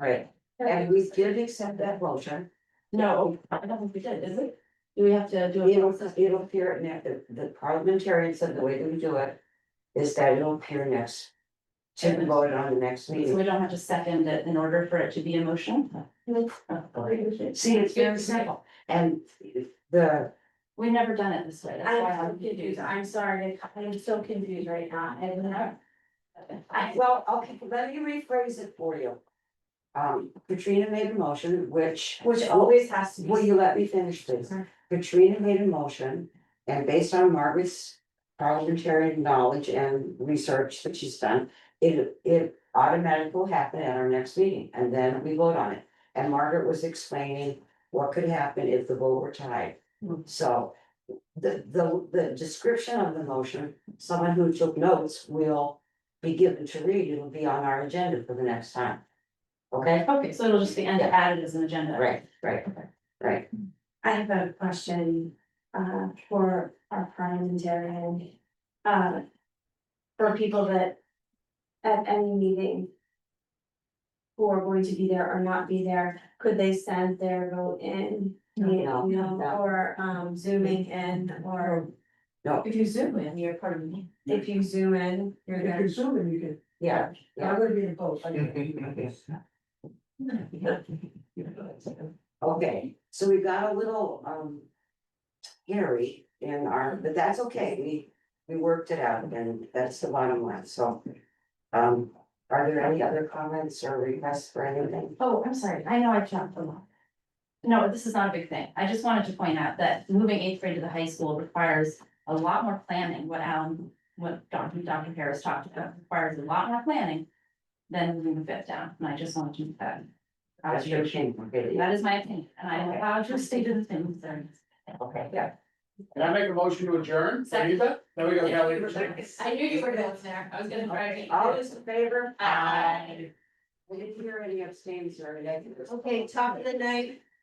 Right, and we did accept that motion, No, I don't think we did, is it? Do we have to do a it'll, process? it'll appear at next, the- the parliamentarian said the way that we do it. Is that it'll appear next, to be voted on the next So meeting, we don't have to second it in order for it to be a motion? Oh, see, it's very simple, and the, We've never done it this way, that's why I'm I'm confused, confused. I'm sorry, I'm so confused right now, and I, well, okay, let me rephrase it for you. Um, Katrina made a motion, which. which always has to be. Will you let me finish please? Sure. Katrina made a motion and based on Margaret's parliamentary knowledge and research that she's done. It it automatically will happen at our next meeting and then we vote on it. And Margaret was explaining what could happen if the vote were tied. Hmm. So the the the description of the motion, someone who took notes will be given to read. It'll be on our agenda for the next time. Okay, Okay, so it'll just be end- Yeah. added as an agenda. right, right, right. I have a question uh for our parliamentarian. Uh. For people that. At any meeting. Who are going to be there or not be there, could they send their vote in? you No, know, no. Or um zooming in, or If you zoom in, you're part of me. if you zoom in, you're If there. you're zooming, you can, Yeah, I'm gonna be in both. I Okay, so we got a little um. Hairy in our, but that's okay, we, we worked it out and that's the bottom line, so. Um, are there any other comments or requests for anything? Oh, I'm sorry, I know I jumped a lot. No, this is not a big thing, I just wanted to point out that moving eighth grade to the high school requires a lot more planning, what Alan, what Dr. Dr. Harris talked about, requires a lot more planning. Than moving the fifth down, and I just wanted to uh, make that. That's your thing, okay, yeah, That is my opinion, and I am allowed to state the things there. okay, yeah. Can I make a motion to adjourn? Can you do that? Now we got Kelly. I knew you were going there, I was gonna Okay, All those in favor? Aye. We didn't hear any abstains or anything. Okay, top of the night.